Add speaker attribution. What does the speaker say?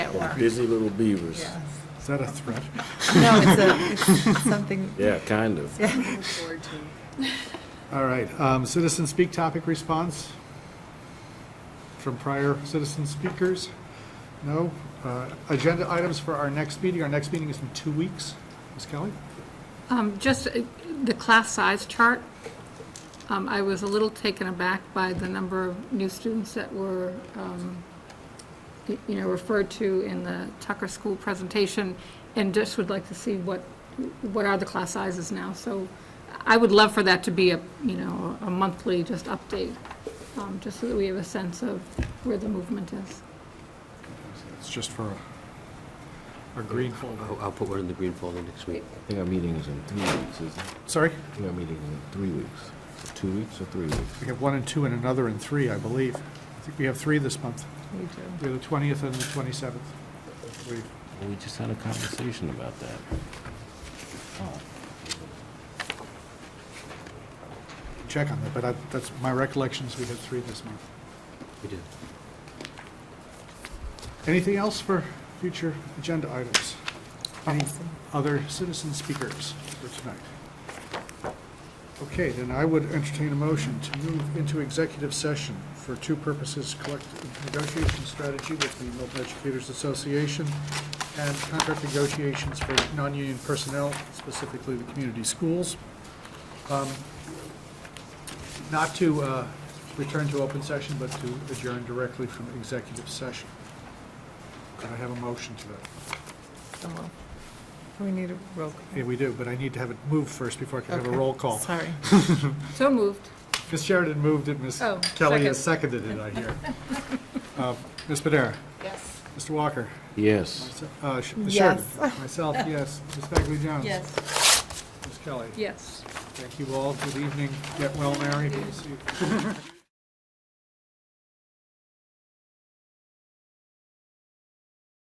Speaker 1: that
Speaker 2: Yeah.
Speaker 1: one. Busy little beavers.
Speaker 2: Yes.
Speaker 3: Is that a threat?
Speaker 2: No, it's a, it's something.
Speaker 1: Yeah, kind of.
Speaker 2: Yeah.
Speaker 4: Look forward to.
Speaker 3: All right, um, citizen speak topic response from prior citizen speakers? No? Uh, Agenda items for our next meeting, our next meeting is in two weeks. Ms. Kelly?
Speaker 5: Um, Just uh, the class size chart, um, I was a little taken aback by the number of new students that were, um, y- you know, referred to in the Tucker School presentation, and just would like to see what, what are the class sizes now. So I would love for that to be a, you know, a monthly just update, um, just so that we have a sense of where the movement is.
Speaker 3: It's just for our green folder.
Speaker 6: I'll I'll put one in the green folder next week.
Speaker 1: I think our meeting is in three weeks, isn't it?
Speaker 3: Sorry?
Speaker 1: I think our meeting is in three weeks. Two weeks or three weeks?
Speaker 3: We have one and two and another and three, I believe. I think we have three this month.
Speaker 2: We do.
Speaker 3: We have the 20th and the 27th. I believe.
Speaker 1: Well, we just had a conversation about that.
Speaker 3: Check on that, but I- that's, my recollection is we had three this month.
Speaker 6: We did.
Speaker 3: Anything else for future agenda items? Any other citizen speakers for tonight? Okay, then I would entertain a motion to move into executive session for two purposes, collective negotiation strategy with the Milton Educators Association and contract negotiations for non-union personnel, specifically the community schools. Um, Not to uh, return to open session, but to adjourn directly from executive session. Could I have a motion to that?
Speaker 2: So moved. We need a roll.
Speaker 3: Yeah, we do, but I need to have it moved first before I can have a
Speaker 2: Okay.
Speaker 3: roll call.
Speaker 2: Sorry.
Speaker 5: So moved.
Speaker 3: Ms. Sheridan moved it, Ms.
Speaker 5: Oh,
Speaker 3: Kelly has seconded it, I hear. Uh, Ms. Padera?
Speaker 4: Yes.
Speaker 3: Mr. Walker?
Speaker 1: Yes.
Speaker 3: uh, Sh- Ms. Sheridan?
Speaker 2: Yes.
Speaker 3: Myself, yes. Ms. Bagley Jones?
Speaker 4: Yes.
Speaker 3: Ms. Kelly?
Speaker 5: Yes.
Speaker 3: Thank you all. Good evening. Get well, Mary. Good to see you.